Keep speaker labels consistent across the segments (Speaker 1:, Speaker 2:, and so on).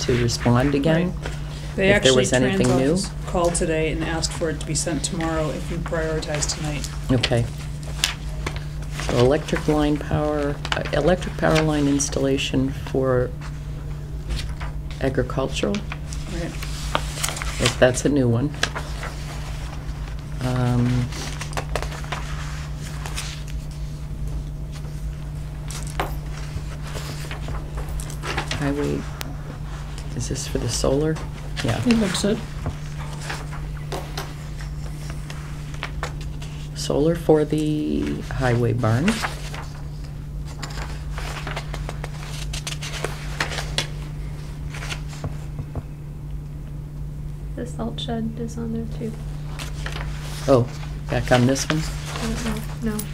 Speaker 1: to respond again?
Speaker 2: They
Speaker 1: If there
Speaker 2: actually,
Speaker 1: was anything new?
Speaker 2: Transloc called today and asked for it to be sent tomorrow if you prioritize tonight.
Speaker 1: Okay. So electric line power, uh, electric power line installation for agricultural,
Speaker 2: Right.
Speaker 1: if that's a new one. Um, Highway, is this for the solar? Yeah.
Speaker 3: It looks it.
Speaker 1: Solar for the highway barn.
Speaker 4: The salt shed is on there too.
Speaker 1: Oh, back on this one?
Speaker 4: I don't know, no.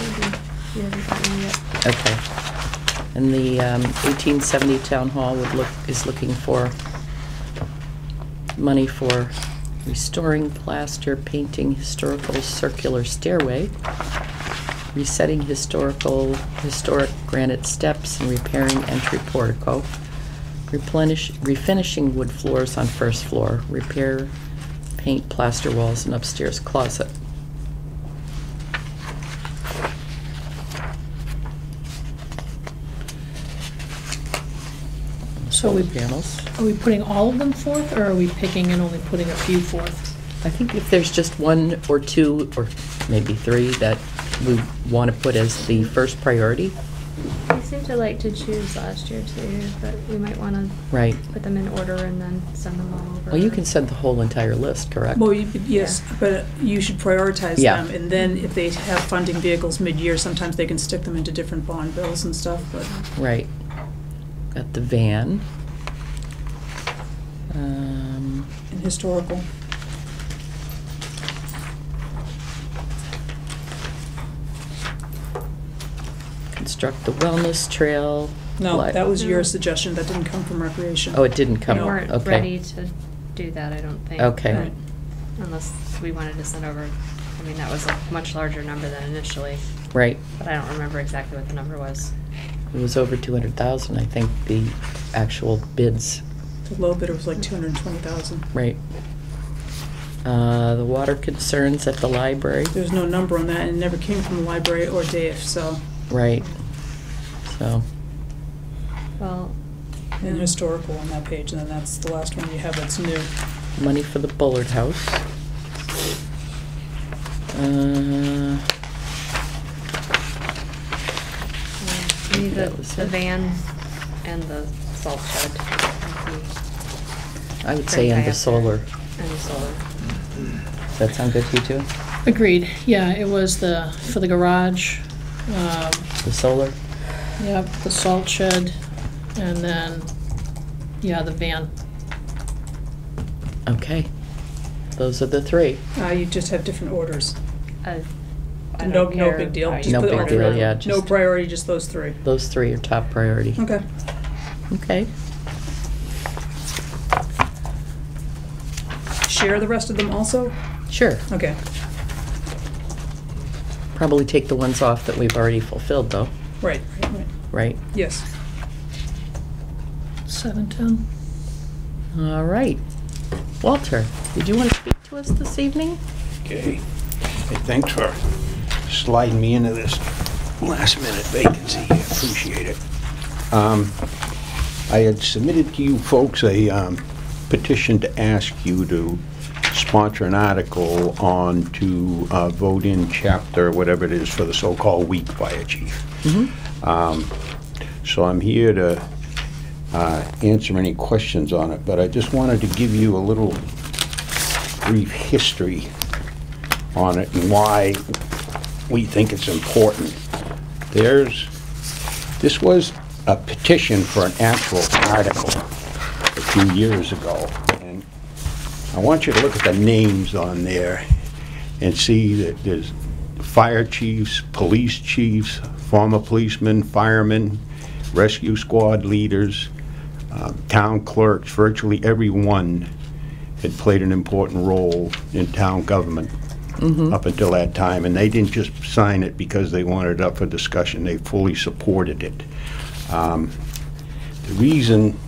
Speaker 4: Maybe we haven't gotten it yet.
Speaker 1: Okay. And the um, 1870 Town Hall would look, is looking for money for restoring plaster, painting historical circular stairway, resetting historical, historic granite steps, and repairing entry portico, replenish, refinishing wood floors on first floor, repair, paint plaster walls and upstairs closet.
Speaker 3: So we-
Speaker 1: Solar Panels.
Speaker 3: Are we putting all of them forth, or are we picking and only putting a few forth?
Speaker 1: I think if there's just one or two, or maybe three, that we want to put as the first priority, Oh.
Speaker 4: We seemed to like to choose last year too, but we might wanna
Speaker 1: right?
Speaker 4: put them in order and then send them all over.
Speaker 1: Well, you can send the whole entire list, correct?
Speaker 2: Well, you- yes, but you should prioritize
Speaker 1: Uh, Yeah.
Speaker 2: them, and then if they have funding vehicles mid-year, sometimes they can stick them into different bond bills and stuff, but
Speaker 1: Right. Got the van. Um,
Speaker 2: in historical.
Speaker 1: Construct the wellness trail.
Speaker 2: No,
Speaker 1: li-
Speaker 2: that was your
Speaker 4: No.
Speaker 2: suggestion, that didn't come from recreation.
Speaker 1: Oh, it didn't
Speaker 4: We
Speaker 1: come,
Speaker 2: No.
Speaker 4: weren't
Speaker 1: okay.
Speaker 4: ready to do that, I don't think.
Speaker 1: Okay.
Speaker 2: Right.
Speaker 4: but Unless we wanted to send over, I mean, that was a much larger number than initially,
Speaker 1: Right.
Speaker 4: but I don't remember exactly what the number was.
Speaker 1: It was over 200,000, I think, the actual bids.
Speaker 2: The low bidder was like two hundred and twenty thousand.
Speaker 1: Right. Uh, The water concerns at the library.
Speaker 2: There's no number on that, and it never came from the library or Dave, so,
Speaker 1: Right. So,
Speaker 4: Well.
Speaker 2: in
Speaker 4: yeah.
Speaker 2: historical on that page, and then that's the last one you have that's new.
Speaker 1: money for the Bullard House. Uh,
Speaker 4: We need
Speaker 1: Maybe
Speaker 4: the,
Speaker 1: that was
Speaker 4: the
Speaker 1: it.
Speaker 4: van and the salt shed.
Speaker 1: I would say under solar.
Speaker 4: And the solar.
Speaker 1: Does that sound good to you too?
Speaker 3: Agreed, yeah, it was the, for the garage, um,
Speaker 1: The solar?
Speaker 3: yep, the salt shed, and then, yeah, the van.
Speaker 1: Okay. Those are the three.
Speaker 2: Uh, you just have different orders.
Speaker 4: Uh, I
Speaker 2: No,
Speaker 4: don't
Speaker 2: no
Speaker 4: care
Speaker 2: big deal.
Speaker 4: how you
Speaker 2: Just
Speaker 1: No
Speaker 2: put it
Speaker 1: big
Speaker 2: all
Speaker 1: deal,
Speaker 2: through.
Speaker 4: around.
Speaker 1: yeah,
Speaker 2: No
Speaker 1: just-
Speaker 2: priority, just those three.
Speaker 1: Those three are top priority.
Speaker 2: Okay.
Speaker 1: Okay.
Speaker 2: Share the rest of them also?
Speaker 1: Sure.
Speaker 2: Okay.
Speaker 1: Probably take the ones off that we've already fulfilled though,
Speaker 2: Right, right, right.
Speaker 1: right?
Speaker 2: Yes.
Speaker 3: Seven, ten?
Speaker 1: All right. Walter, did you want to speak to us this evening?
Speaker 5: Okay. Hey, thanks for sliding me into this last minute vacancy. Appreciate it. Um, I had submitted to you folks a um, petition to ask you to sponsor an article on to uh, vote in chapter, whatever it is, for the so-called weak fire chief. Um, So I'm here to uh, answer any questions on it, but I just wanted to give you a little brief history on it and why we think it's important. There's, this was a petition for an actual article a few years ago, and I want you to look at the names on there and see that there's fire chiefs, police chiefs, former policemen, firemen, rescue squad leaders, uh, town clerks, virtually everyone had played an important role in town government up until that time, and they didn't just sign it because they wanted it up for discussion, they fully supported it. Um, The reason